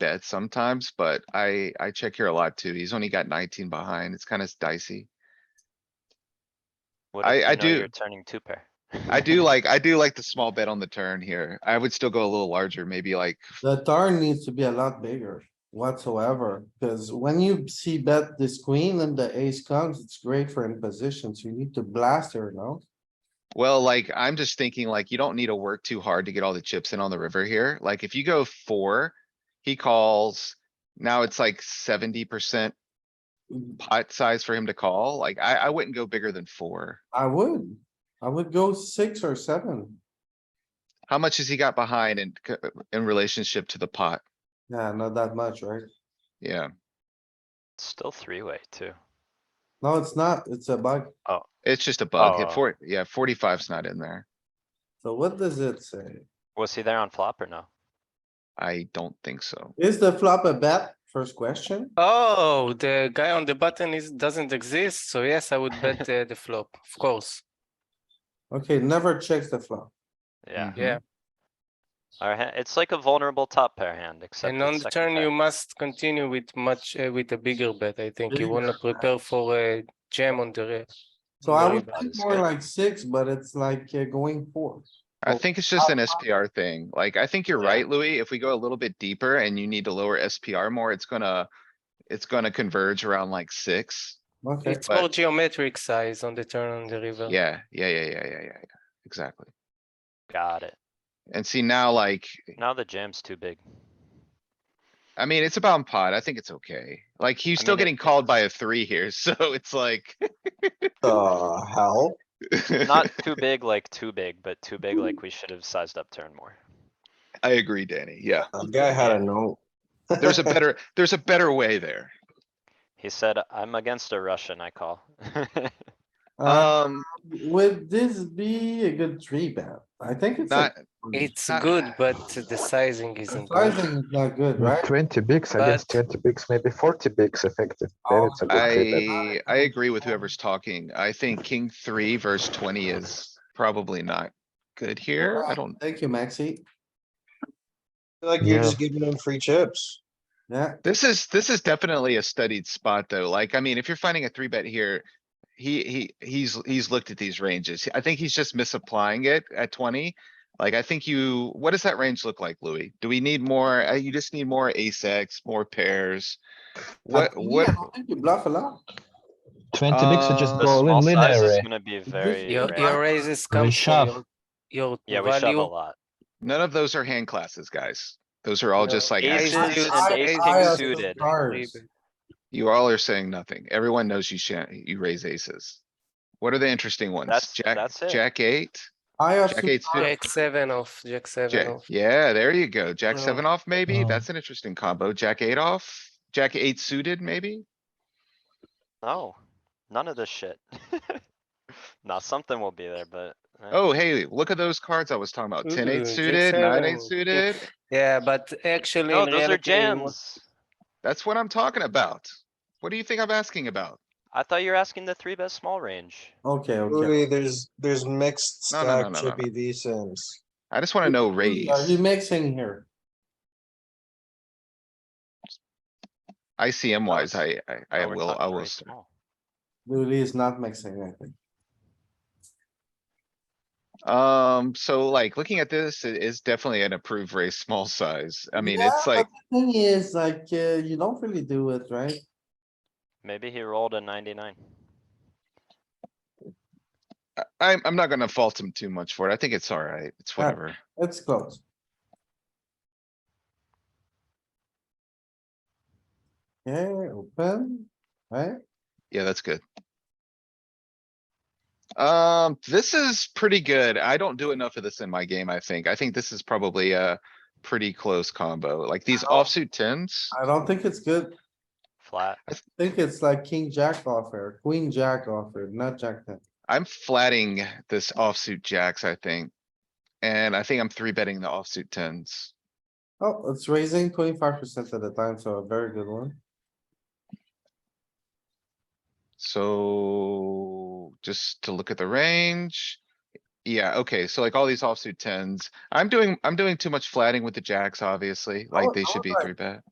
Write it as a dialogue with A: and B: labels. A: dead sometimes, but I, I check here a lot too. He's only got nineteen behind. It's kind of dicey.
B: What
A: I-
B: if
A: I
B: you know
A: do-
B: You're turning two pair.
A: I do like, I do like the small bet on the turn here. I would still go a little larger, maybe like,
C: The turn needs to be a lot bigger whatsoever, because when you see bet this queen and the ace comes, it's great for impositions. You need to blast her, no?
A: well, like, I'm just thinking like, you don't need to work too hard to get all the chips in on the river here. Like, if you go four, he calls. Now it's like seventy percent pot size for him to call. Like, I, I wouldn't go bigger than four.
C: I would, I would go six or seven.
A: How much has he got behind in, c- in relationship to the pot?
C: Yeah, not that much, right?
A: Yeah,
B: It's Still three-way too.
C: No, it's not. It's a bug.
A: it's just a bug.
B: Oh.
A: At four, yeah, forty-five's not in there.
C: So what does it say?
B: Was he there on flop or no?
A: I don't think so.
C: Is the flop a bet? First question.
D: Oh, the guy on the button is doesn't exist. So yes, I would bet uh, the flop, of course.
C: Okay, never checks the flop.
B: Yeah,
D: Yeah.
B: our hand, it's like a vulnerable top pair hand, except.
D: and
B: it's
D: on the
B: second
D: turn,
B: pair.
D: you must continue with much uh, with a bigger bet. I think you
C: Bigger
D: want to prepare for a jam on the river.
C: So I
D: Very
C: would
D: bad
C: think
B: escape.
C: more like six, but it's like uh, going four.
A: I
C: Oh,
A: think it's just an SPR thing. Like, I think you're
B: Yeah.
A: right, Louis. If we go a little bit deeper and you need to lower SPR more, it's gonna, it's gonna converge around like six.
C: Okay,
D: It's
A: but-
D: more geometric size on the turn on the river.
A: Yeah, yeah, yeah, yeah, yeah, yeah, yeah, exactly.
B: Got it.
A: And see now, like,
B: Now the jam's too big.
A: I mean, it's about pot. I think it's okay. Like, he's
B: I
A: still
B: mean, it-
A: getting called by a three here, so it's like.
C: the hell?
B: Not too big, like too big, but too big, like we should have sized up turn more.
A: I agree, Danny. Yeah,
C: That guy had a note.
A: there's a better, there's a better way there.
B: He said, I'm against a Russian, I call.
C: Uh,
B: Uh,
A: Um,
C: Would this be a good three bet? I think it's. a-
A: not,
D: It's
A: Not-
D: good, but the sizing isn't
C: I
D: good.
C: think it's not good,
E: With
C: right?
E: 20 bigs, I guess
D: But-
E: 20 bigs, maybe 40 bigs effective. Then
C: Oh,
E: it's a good three bet.
A: I, I agree with whoever's talking. I think king three verse twenty is probably not good here. I don't,
C: Thank you, Maxi.
F: Like you're
E: Yeah.
F: just giving them free chips.
C: Yeah,
A: this is, this is definitely a studied spot though. Like, I mean, if you're finding a three bet here, he, he, he's, he's looked at these ranges. I think he's just misapplying it at twenty. Like, I think you, what does that range look like, Louis? Do we need more? uh, You just need more ace X, more pairs? What,
C: But yeah,
A: what?
C: I don't think You bluff a lot.
G: 20 bigs are just
A: Uh,
B: The
G: go all
B: small
G: in
B: size is
E: eh?
G: linear.
B: gonna be
C: This-
B: very
D: Your,
B: rare.
D: your raises come from
G: shove.
D: your, your
B: Yeah, we shove a
D: value.
B: lot.
A: None of those are hand classes, guys. Those are all
D: No.
A: just like,
B: Aces
A: actions.
B: and
C: I-
B: aces
C: I also
B: suited.
C: cards.
A: you all are saying nothing. Everyone knows you shan't, you raise aces. What are the interesting ones?
B: That's-
A: Jack,
B: that's it.
A: Jack eight,
C: I
A: jack
C: also,
A: eight suited,
D: Jack seven off, jack seven
A: Jack,
D: off.
A: yeah, there you go. Jack
D: No.
A: seven off, maybe?
G: No.
A: That's an interesting combo. Jack eight off, Jack eight suited, maybe?
B: No, none of this shit. Now, something will be there, but. eh.
A: Oh, hey, look at those cards I was talking about. Ten
D: Ooh,
A: eight
D: Jack
A: suited, nine
D: seven.
A: eight suited.
D: Yeah, but actually,
B: No,
D: in
B: those are
D: reality, it was-
B: jams.
A: That's what I'm talking about. What do you think I'm asking about?
B: I thought you were asking the three bet small range.
C: okay, okay.
F: Louis, there's, there's mixed
A: No, no, no,
F: stack
A: no, no, no.
F: chippy V sims.
A: I just wanna know raise.
D: uh,
C: Are you mixing here?
A: ICM wise, I, I, I
B: Oh, we're
A: will,
B: talking
A: I
B: very
A: will. start.
B: small.
C: Louis is not mixing, I think.
A: Um, so like, looking at this, it is definitely an approved raise small size. I mean,
C: Yeah,
A: it's
C: but
A: like.
C: the Thing is, like, uh, you don't really do it, right?
B: Maybe he rolled a ninety-nine.
A: I- I'm, I'm not gonna fault him too much for it. I think it's alright. It's
C: Yeah.
A: whatever.
C: It's close. Okay, open, right?
A: Yeah, that's good. Um, this is pretty good. I don't do enough of this in my game, I think. I think this is probably a pretty close combo. Like these
C: Oh.
A: offsuit tens.
C: I don't think it's good.
B: Flat.
C: I think it's like king jack offer, queen jack offer, not jack ten.
A: I'm flatting this offsuit jacks, I think. And I think I'm three betting the offsuit tens.
C: Oh, it's raising twenty-five percent of the time, so a very good one.
A: So just to look at the range. Yeah, okay, so like all these offsuit tens, I'm doing, I'm doing too much flatting with the jacks, obviously, like
F: would-
A: they
F: I
A: should
F: would
A: be
F: like-
A: three bet.